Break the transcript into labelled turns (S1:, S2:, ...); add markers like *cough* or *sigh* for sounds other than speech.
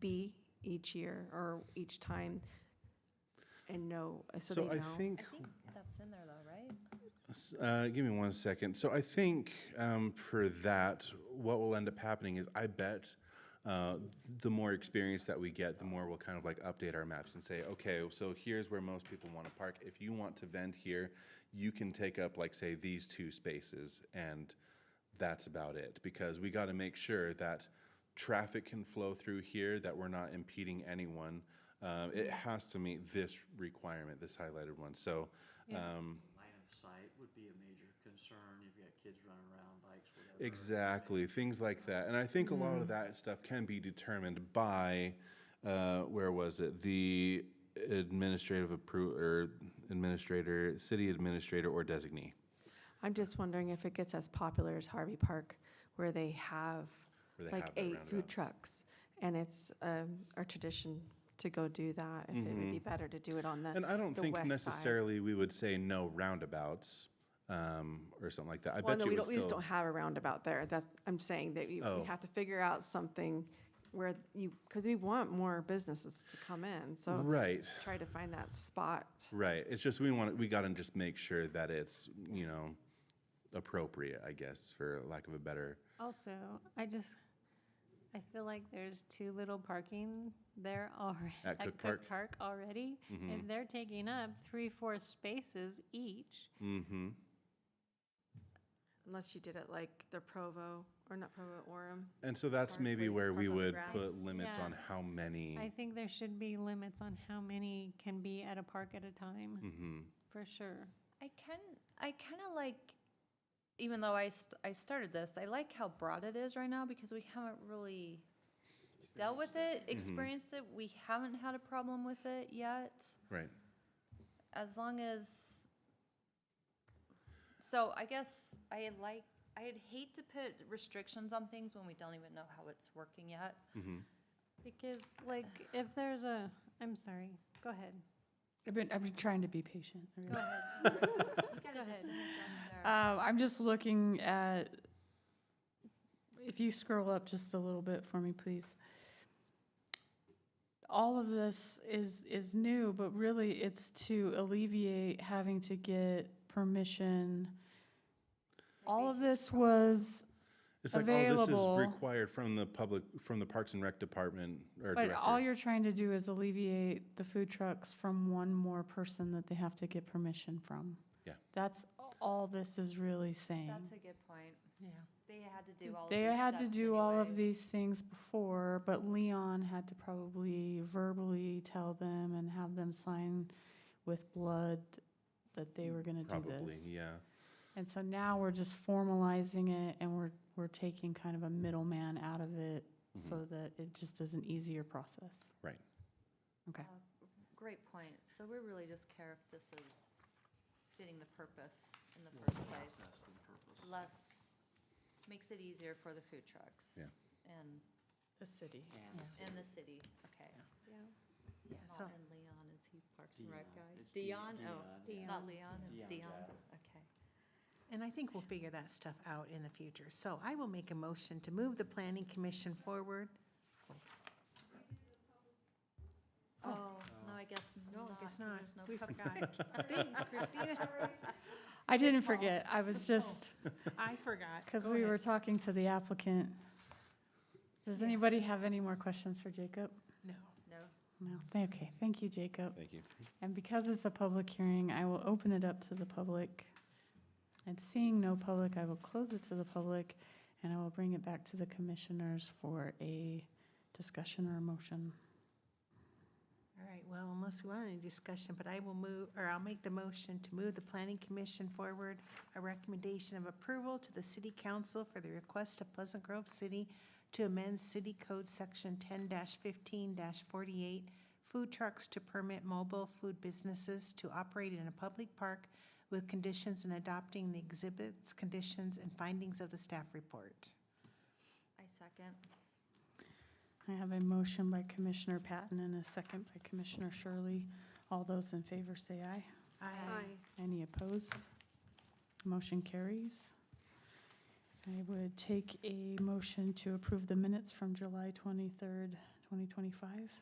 S1: be each year or each time? And know, uh, so they
S2: So
S1: know?
S2: I think,
S3: I think
S4: Hmm.
S3: that's in there though, right?
S2: s- uh, give me one second. So I think um, for that, what will end up happening is I bet uh, the more experience that we get, the more we'll kind of like update our maps and say, okay, so here's where most people want to park. If you want to vent here, you can take up like, say, these two spaces and that's about it. Because we got to make sure that traffic can flow through here, that we're not impeding anyone. Uh, It has to meet this requirement, this highlighted one. So um,
S5: Line of sight would be a major concern. You've got kids running around, bikes, whatever.
S2: Exactly, things like that. And I think a lot
S1: Mm.
S2: of that stuff can be determined by, uh, where was it? The administrative appro, or administrator, city administrator or designee.
S1: I'm just wondering if it gets as popular as Harvey Park, where they have
S2: Where they
S1: like
S2: have that
S1: eight food
S2: roundabout.
S1: trucks. And it's um, our tradition to go do that, if it would be better to do it on the
S2: Mm-hmm. And I don't
S1: the
S2: think
S1: west side.
S2: necessarily we would say no roundabouts, um, or something like that. I
S1: Well,
S2: bet
S1: no,
S2: you
S1: we
S2: would
S1: don't, we just
S2: still.
S1: don't have a roundabout there. That's, I'm saying that you
S2: Oh.
S1: we have to figure out something where you, because we want more businesses to come in, so
S2: Right,
S1: try to find that spot.
S2: right. It's just we want, we gotta just make sure that it's, you know, appropriate, I guess, for lack of a better.
S3: Also, I just, I feel like there's too little parking there already.
S2: At Cook Park?
S3: already. If they're taking up three, four spaces each,
S2: Mm-hmm.
S1: Unless you did it like the Provo, or not Provo, Orem.
S2: And so that's
S1: Park
S2: maybe
S1: where you
S2: where we
S1: park on the
S2: would
S1: grass.
S2: put limits
S3: Yeah.
S2: on how many.
S3: I think there should be limits on how many can be at a park at a time,
S2: Mm-hmm.
S3: for sure.
S4: I can, I kind of like, even though I, st- I started this, I like how broad it is right now because we haven't really dealt with it, Mm-hmm. experienced it. We haven't had a problem with it yet.
S2: Right.
S4: As long as, so I guess I like, I'd hate to put restrictions on things when we don't even know how it's working yet.
S2: mm-hmm.
S3: Because like, if there's a, I'm sorry, go ahead.
S6: I've been, I've been trying to be patient. I really-
S4: Go *laughs* ahead. You gotta
S3: Go
S4: just
S3: ahead.
S4: interject there.
S6: Uh, I'm just looking at, if you scroll up just a little bit for me, please. All of this is, is new, but really it's to alleviate having to get permission. All of this was,
S2: It's like, oh, this
S6: Available.
S2: is required from the public, from the Parks and Rec Department or
S6: but all
S2: director.
S6: you're trying to do is alleviate the food trucks from one more person that they have to get permission from.
S2: Yeah.
S6: That's all this is really saying.
S4: That's a good point. Yeah. They had to do all of these
S6: They had to
S4: steps
S6: do all of
S4: anyway.
S6: these things before, but Leon had to probably verbally tell them and have them sign with blood that they were gonna do
S2: Probably,
S6: this.
S2: yeah.
S6: And so now we're just formalizing it and we're, we're taking kind of a middleman out of it
S2: Mm-hmm.
S6: so that it just is an easier process.
S2: Right.
S6: Okay.
S4: Great point. So we really just care if this is fitting the purpose in the first place. Less, makes it easier for the food trucks.
S2: Yeah.
S4: And,
S6: The city.
S4: and the city, okay.
S7: Yeah, so,
S4: Not in Leon, is he Parks and Rec
S5: Dion.
S4: guy?
S5: It's
S4: Dion,
S5: Dion,
S4: oh,
S5: Dion,
S4: not Leon, it's
S5: Dion
S4: Dion,
S5: Jazz.
S4: okay.
S7: and I think we'll figure that stuff out in the future. So I will make a motion to move the planning commission forward.
S4: Oh, no, I guess
S7: No,
S4: not.
S7: I guess
S4: 'cause
S7: not.
S4: There's no
S7: We
S4: cupcake.
S7: forgot. Thanks, Christina.
S6: I didn't forget. I was just,
S7: I forgot.
S6: because
S7: Go
S6: we
S7: ahead.
S6: were talking to the applicant. Does anybody have any more questions for Jacob?
S7: No.
S4: *laughs* No,
S6: No, th- okay, thank you, Jacob.
S2: Thank you.
S6: And because it's a public hearing, I will open it up to the public. And seeing no public, I will close it to the public, and I will bring it back to the commissioners for a discussion or a motion.
S7: All right, well, unless we want any discussion, but I will move, or I'll make the motion to move the planning commission forward a recommendation of approval to the city council for the request of Pleasant Grove City to amend city code section ten fifteen forty-eight, food trucks to permit mobile food businesses to operate in a public park with conditions and adopting the exhibits, conditions, and findings of the staff report.
S4: I second.
S6: I have a motion by Commissioner Patton and a second by Commissioner Shirley. All those in favor say aye.
S1: 哎
S6: Any opposed? Motion carries. I would take a motion to approve the minutes from July 23rd, 2025.